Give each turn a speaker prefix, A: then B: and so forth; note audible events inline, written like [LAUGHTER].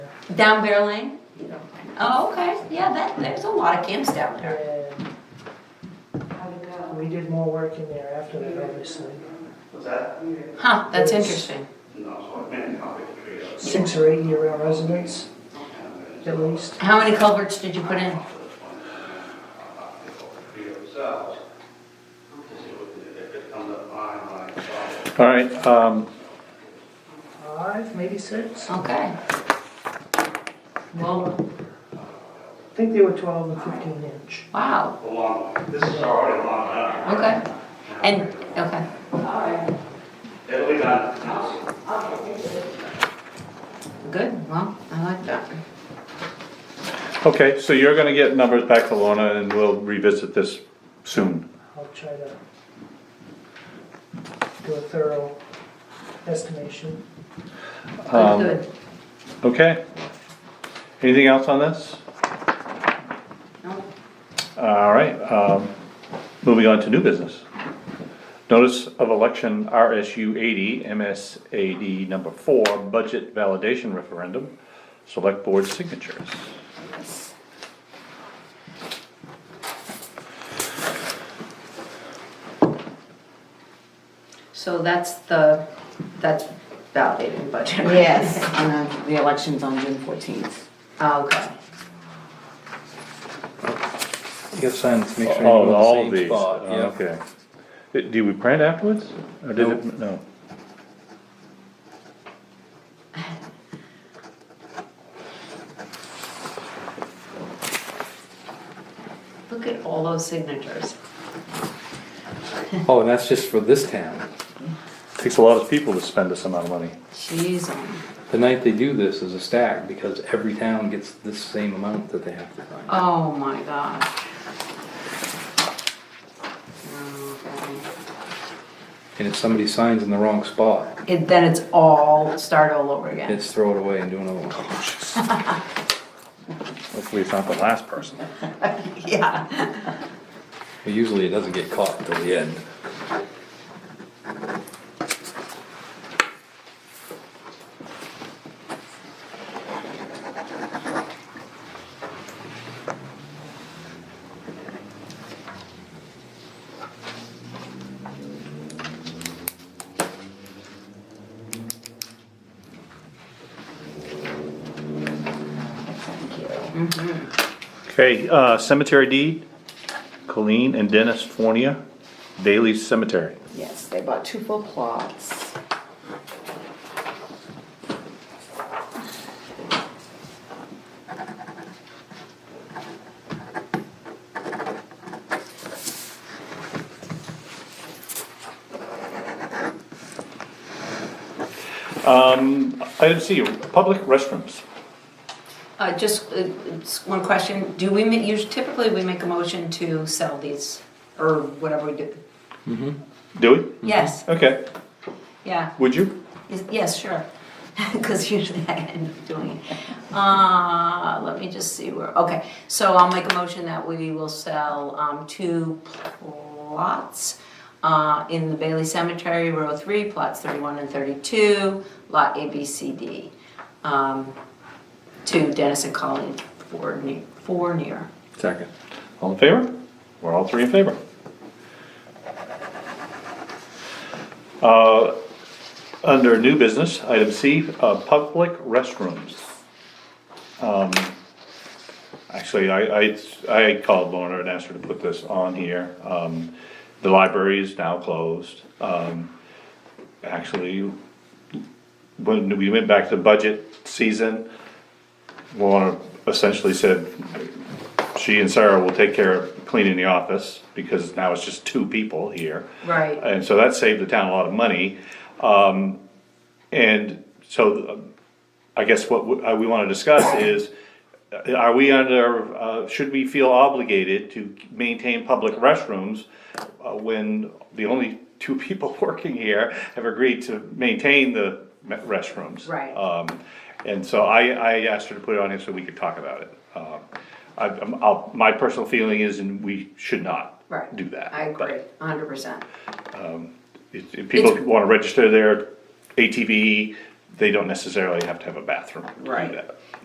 A: Down Bear Lane?
B: Yeah.
A: Oh, okay, yeah, that, there's a lot of camps down there.
B: And
C: How'd it go?
B: we did more work in there after that, obviously.
D: What's that?
A: Huh, that's interesting.
D: No, I meant how it creates.
B: Six or eight year-round residents, at least.
A: How many culverts did you put in?
D: Yourselves. To see what- if it comes up fine, like, uh,
E: All right, um,
B: Five, maybe six? I
A: Okay. Well,
B: think they were twelve and fifteen inch.
A: wow,
D: a long way. This is already a long enough.
A: okay. And, okay,
D: It'll be done.
A: good, well, I like that.
E: okay, so you're gonna get numbers back to Lorna and we'll revisit this soon.
B: I'll try to do a thorough estimation.
A: Good,
E: Um,
A: good.
E: Okay. Anything else on this?
A: No,
E: All right, um, moving on to new business. Notice of election RSU eighty, MSAD number four, budget validation referendum, select board signatures.
A: So that's the, that's validating budget. right?
C: Yes, on the, the election's on June fourteenth.
A: Oh, Okay,
F: You gotta sign to make sure you're in
E: Oh, all of
F: the same
E: these, Oh,
F: spot, yeah.
E: okay. Uh, Do we print afterwards? Or did it, no?
A: look at all those signatures.
F: Oh, and that's just for this town.
E: Takes a lot of people to spend this amount of money.
A: Jeez,
F: The night they do this is a stack, because every town gets the same amount that they have to sign.
A: oh my gosh.
C: Oh
A: Okay.
F: And if somebody signs in the wrong spot,
A: It, then it's all start all over again.
F: it's throw it away and do another one.
E: Hopefully it's not the last person.
A: yeah.
F: But Usually it doesn't get caught until the end.
E: Okay, uh, cemetery deed, Colleen and Dennis Fornia, Bailey Cemetery.
C: Yes, they bought two full plots.
E: Um, item C, public restrooms.
A: Uh, just, uh, it's one question, do we, ma- usu- typically we make a motion to sell these, or whatever we do?
E: Do
A: Yes,
E: we? Okay,
A: yeah,
E: would you?
A: Is- yes, sure, [LAUGHS] because usually I end up doing it. Uh, let me just see where, okay, so I'll make a motion that we will sell, um, two plots uh, in the Bailey Cemetery, row three, plots thirty-one and thirty-two, lot A, B, C, D, um, to Dennis and Colleen Fournier, Fournier.
F: Second.
E: All in favor? We're all three in favor. Uh, under new business, item C, uh, public restrooms. Um, Actually, I, I, I called Lorna and asked her to put this on here. Um, the library is now closed. Um, actually, when we went back to budget season, Lorna essentially said, she and Sarah will take care of cleaning the office, because now it's just two people here.
A: Right.
E: And so that saved the town a lot of money. Um, and so uh, I guess what we, uh, we wanna discuss is, uh, are we under, uh, should we feel obligated to maintain public restrooms uh, when the only two [LAUGHS] people working here have agreed to maintain the me- restrooms?
A: Right.
E: Um, and so I, I asked her to put it on here so we could talk about it. Um, I, I'm- I'll, my personal feeling is, and we should not
A: Right.
E: do that.
A: I
E: but-
A: agree, hundred percent.
E: if if people
A: It's-
E: wanna register their ATV, they don't necessarily have to have a bathroom to do
A: Right.
E: that.